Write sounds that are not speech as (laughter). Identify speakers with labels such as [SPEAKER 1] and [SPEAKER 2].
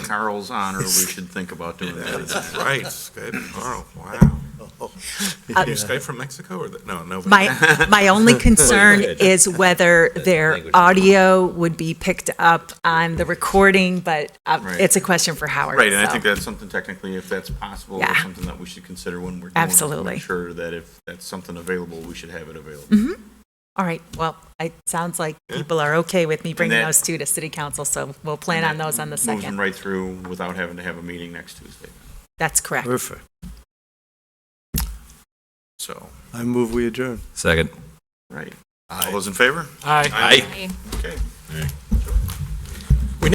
[SPEAKER 1] Carl's honor,
[SPEAKER 2] (laughs)
[SPEAKER 1] we should think about doing that.
[SPEAKER 2] That's right, Skype tomorrow, wow.
[SPEAKER 3] Uh,
[SPEAKER 2] You Skype from Mexico or, the- no, no. but-
[SPEAKER 1] (laughs)
[SPEAKER 3] My, my only concern
[SPEAKER 1] ahead.
[SPEAKER 3] is whether their
[SPEAKER 1] Language.
[SPEAKER 3] audio would be picked up on the recording, but uh,
[SPEAKER 1] Right.
[SPEAKER 3] it's a question for Howard.
[SPEAKER 1] Right, and I
[SPEAKER 3] so.
[SPEAKER 1] think that's something technically, if that's possible, or
[SPEAKER 3] Yeah.
[SPEAKER 1] something that we should consider when we're doing it. to
[SPEAKER 3] Absolutely. Mm-hmm.
[SPEAKER 1] Make sure that if that's something available, we should have it available.
[SPEAKER 3] All right, well, it sounds like people are okay with me bringing
[SPEAKER 1] that-
[SPEAKER 3] those two to city council, so we'll plan on those on the
[SPEAKER 1] Moves them
[SPEAKER 3] second.
[SPEAKER 1] right through without having to have a meeting next Tuesday.
[SPEAKER 3] That's correct.
[SPEAKER 4] Perfect.
[SPEAKER 2] So,
[SPEAKER 4] I move we adjourn.
[SPEAKER 5] Second.
[SPEAKER 1] Right. All those in favor?
[SPEAKER 6] Aye.
[SPEAKER 1] Aye. Okay.